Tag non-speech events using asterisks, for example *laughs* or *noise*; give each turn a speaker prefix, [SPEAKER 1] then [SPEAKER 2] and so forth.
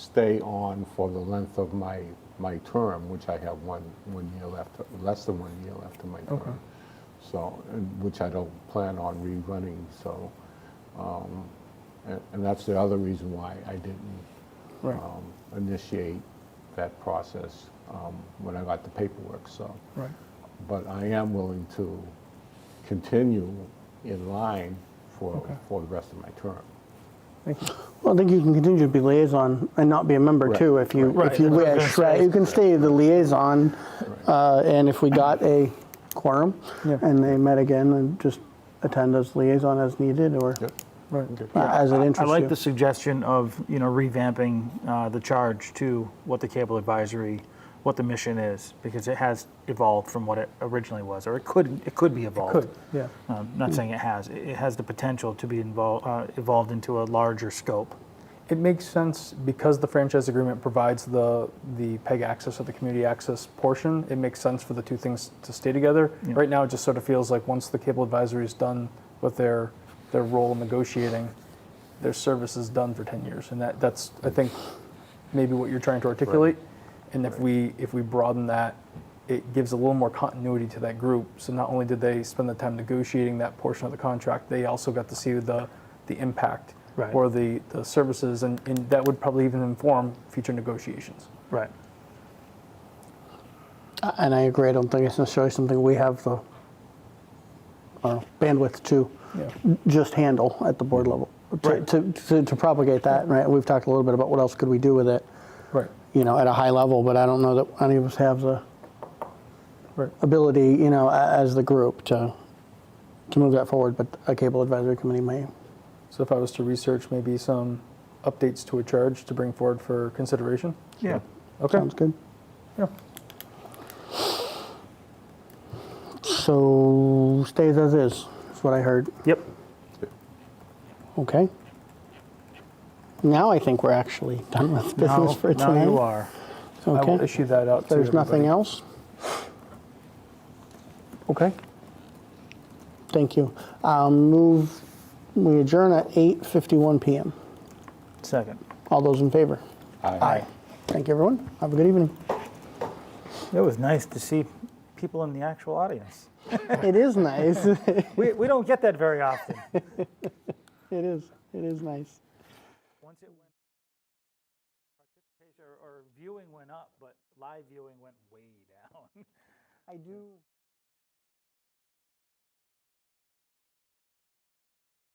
[SPEAKER 1] stay on for the length of my, my term, which I have one, one year left, less than one year left of my
[SPEAKER 2] Okay.
[SPEAKER 1] term. So, and which I don't plan on rerunning, so, um, and, and that's the other reason why I didn't
[SPEAKER 2] Right.
[SPEAKER 1] um, initiate that process um, when I got the paperwork, so.
[SPEAKER 2] Right.
[SPEAKER 1] But I am willing to continue in line for,
[SPEAKER 2] Okay.
[SPEAKER 1] for the rest of my term.
[SPEAKER 2] Thank you.
[SPEAKER 3] Well, I think you can continue to be liaison and not be a member
[SPEAKER 1] Right.
[SPEAKER 3] too, if you,
[SPEAKER 2] Right.
[SPEAKER 3] if you
[SPEAKER 2] Right. I was
[SPEAKER 3] wish,
[SPEAKER 2] gonna
[SPEAKER 3] right?
[SPEAKER 2] say.
[SPEAKER 3] You can stay the liaison, uh, and if we got a quorum,
[SPEAKER 2] Yeah.
[SPEAKER 3] and they met again, and just attend as liaison as needed, or
[SPEAKER 2] Right.
[SPEAKER 1] Okay.
[SPEAKER 3] uh, as it
[SPEAKER 4] I
[SPEAKER 3] interests
[SPEAKER 4] like the
[SPEAKER 3] you.
[SPEAKER 4] suggestion of, you know, revamping uh, the charge to what the cable advisory, what the mission is, because it has evolved from what it originally was, or it could, it could be evolved.
[SPEAKER 2] Could, yeah.
[SPEAKER 4] Um, Not saying it has, it it has the potential to be involved, evolved into a larger scope.
[SPEAKER 2] It makes sense because the franchise agreement provides the, the PEG access or the community access portion. It makes sense for the two things to stay together.
[SPEAKER 4] Yeah.
[SPEAKER 2] Right now, it just sort of feels like once the cable advisory is done with their, their role in negotiating, their service is done for 10 years. And that, that's, I think, maybe what you're trying to articulate. And if we, if we broaden that, it gives a little more continuity to that group. So not only did they spend the time negotiating that portion of the contract, they also got to see the, the impact
[SPEAKER 4] Right.
[SPEAKER 2] or the, the services, and, and that would probably even inform future negotiations.
[SPEAKER 4] Right.
[SPEAKER 3] Uh, And I agree, I don't think it's necessarily something we have the uh, bandwidth to
[SPEAKER 2] Yeah.
[SPEAKER 3] just handle at the board level, to- to, to to propagate that, right? We've talked a little bit about what else could we do with it.
[SPEAKER 2] Right.
[SPEAKER 3] you know, at a high level, but I don't know that any of us have the
[SPEAKER 2] Right.
[SPEAKER 3] ability, you know, a- as the group to, to move that forward, but a cable advisory committee may.
[SPEAKER 2] So if I was to research maybe some updates to a charge to bring forward for consideration.
[SPEAKER 4] Yeah.
[SPEAKER 2] Okay.
[SPEAKER 3] Sounds good.
[SPEAKER 2] Yeah.
[SPEAKER 3] So stays as is, is what I heard.
[SPEAKER 4] Yep.
[SPEAKER 3] Okay. Now I think we're actually done with
[SPEAKER 4] Now
[SPEAKER 3] business for tonight.
[SPEAKER 4] now you are.
[SPEAKER 2] I will
[SPEAKER 3] Okay.
[SPEAKER 2] issue that out. to
[SPEAKER 3] There's nothing
[SPEAKER 2] everybody.
[SPEAKER 3] else?
[SPEAKER 2] Okay.
[SPEAKER 3] Thank you. Um, move, we adjourn at 8:51 PM.
[SPEAKER 4] Second.
[SPEAKER 3] All those in favor?
[SPEAKER 1] Aye.
[SPEAKER 3] Thank you, everyone. Have a good evening.
[SPEAKER 4] It was nice to see people in the actual audience.
[SPEAKER 3] *laughs* It is nice. *laughs* It
[SPEAKER 4] We, we don't get that very often.
[SPEAKER 3] is. It is nice.
[SPEAKER 4] Once it went, participation or- or viewing went up, but live viewing went way *laughs* down.
[SPEAKER 3] I do.